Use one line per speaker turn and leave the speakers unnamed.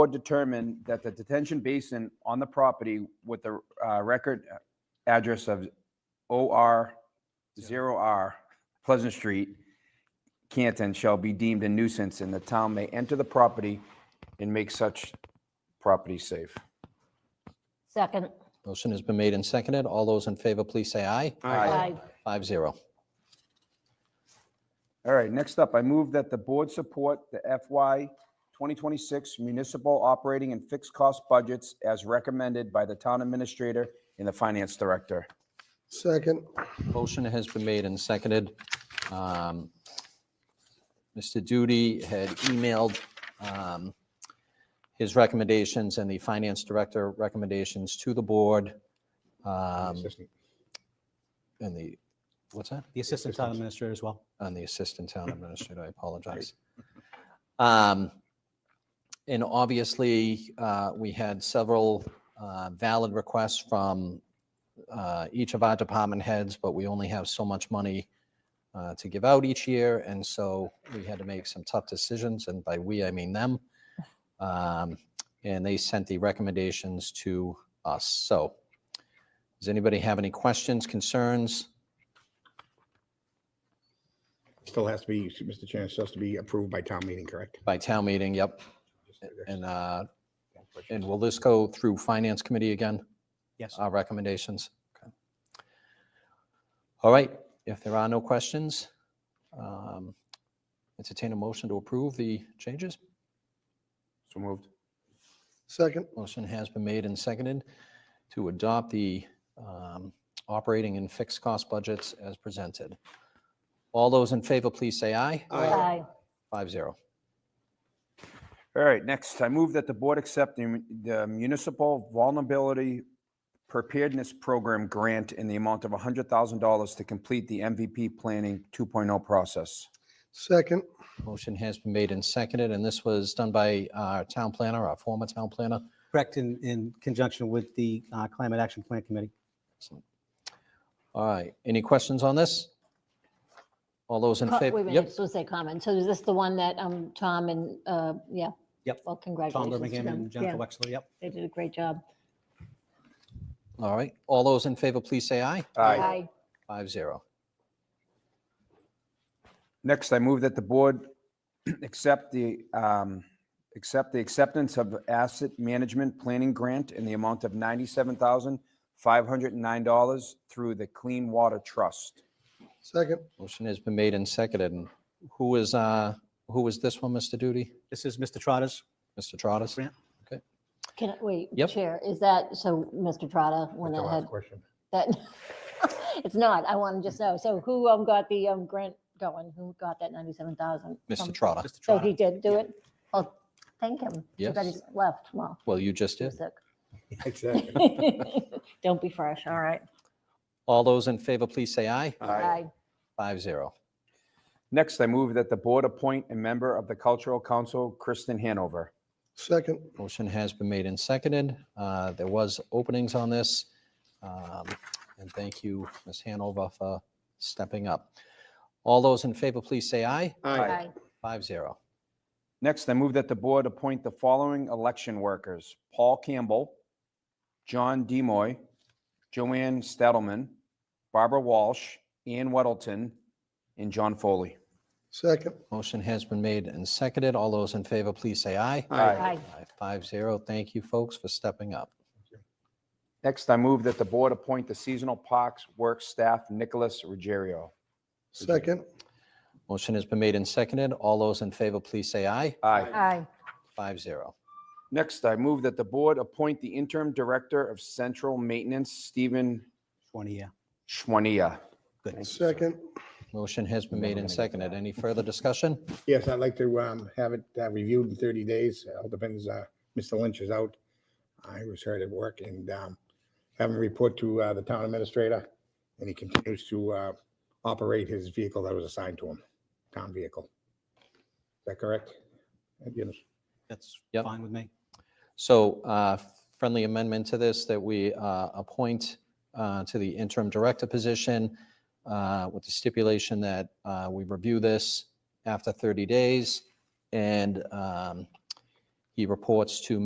board determined that the detention basin on the property with the uh, record address of OR 0R Pleasant Street, Canton, shall be deemed a nuisance, and the town may enter the property and make such property safe.
Second.
Motion has been made and seconded. All those in favor, please say aye.
Aye.
Five zero.
All right, next up, I move that the board support the FY 2026 municipal operating and fixed cost budgets as recommended by the town administrator and the finance director.
Second,
Motion has been made and seconded. Um, Mr. Duty had emailed um, his recommendations and the finance director recommendations to the board. um, And the, what's that?
The assistant town administrator as well.
on the assistant town administrator, I apologize. Um, And obviously, uh, we had several uh, valid requests from uh, each of our department heads, but we only have so much money uh, to give out each year, and so we had to make some tough decisions, and by we, I mean them. Um, And they sent the recommendations to us, so. Does anybody have any questions, concerns?
Still has to be, Mr. Chairman, still has to be approved by town meeting, correct?
By town meeting, yep. And, uh, and will this go through Finance Committee again,
Yes.
our recommendations? Okay. All right, if there are no questions, um, entertain a motion to approve the changes.
So moved.
second,
Motion has been made and seconded to adopt the um, operating and fixed cost budgets as presented. All those in favor, please say aye.
Aye.
Five zero.
All right, next, I move that the board accept the mun- the municipal vulnerability preparedness program grant in the amount of $100,000 to complete the MVP planning 2.0 process.
second,
Motion has been made and seconded, and this was done by our town planner, our former town planner.
Correct, in, in conjunction with the uh, Climate Action Plan Committee.
Excellent. All right, any questions on this? All those in
Co- Wait,
favor?
Uh, wait, I
Yep,
was supposed to say comment. So is this the one that um, Tom and, uh, yeah?
Yep.
Well,
Tom
congratulations to
Birmingham
them.
and Jennifer
Yeah,
Wexler, yep.
They did a great job.
all right. All those in favor, please say aye. Five zero.
Next, I move that the board accept the, um, accept the acceptance of asset management planning grant in the amount of $97,509 through the Clean Water Trust.
second,
Motion has been made and seconded. And who is, uh, who is this one, Mr. Duty?
This is Mr. Trotta's.
Mr. Trotter?
Grant.
Can, I- wait,
Yep.
Chair, is that, so Mr. Trotta went
That's the
ahead,
last question.
that, it's not, I want to just know. So who um, got the um, grant going? Who got that 97,000?
Mr.
from-
Trotter?
Mr.
So he
Trotta.
did do it? Well, thank him. Too bad
Yes.
he's left. Well,
Well, you just
he
did.
was sick.
Exactly.
Don't be fresh, all right.
All those in favor, please say aye.
Aye.
Five zero.
Next, I move that the board appoint a member of the Cultural Council, Kristen Hanover.
second,
Motion has been made and seconded. Uh, There was openings on this. Um, And thank you, Ms. Hanover, for stepping up. All those in favor, please say aye.
Aye.
Five zero.
Next, I move that the board appoint the following election workers: Paul Campbell, John Demoy, Joanne Stedelman, Barbara Walsh, Ann Weddleton, and John Foley.
second,
Motion has been made and seconded. All those in favor, please say aye.
Aye.
Five zero. Thank you, folks, for stepping up.
Next, I move that the board appoint the seasonal parks work staff Nicholas Ruggiero.
second,
Motion has been made and seconded. All those in favor, please say aye.
Aye.
Aye.
Five zero.
Next, I move that the board appoint the interim director of central maintenance Stephen
Twenty, yeah.
Schwania.
Good.
second,
Motion has been made and seconded. Any further discussion?
Yes, I'd like to um, have it uh, reviewed in 30 days. It all depends, uh, Mr. Lynch is out. I was hurt at work and um, have him report to uh, the town administrator. And he continues to uh, operate his vehicle that was assigned to him, town vehicle. Is that correct? Yes.
That's
Yep.
fine with me.
So uh, friendly amendment to this that we uh, appoint uh, to the interim director position uh, with the stipulation that uh, we review this after 30 days. And um, He reports to